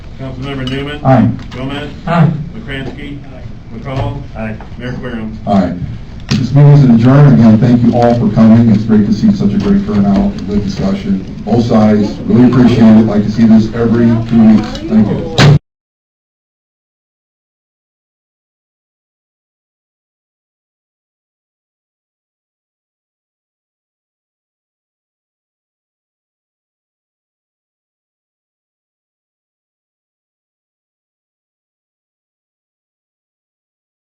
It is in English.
Councilmember Newman. Aye. Gomez. Aye. McCrankey. McCall. Aye. Mayor Querem. All right. This meeting is adjourned. Again, thank you all for coming. It's great to see such a great turnout, good discussion, both sides. Really appreciate it. Like to see this every two weeks. Thank you.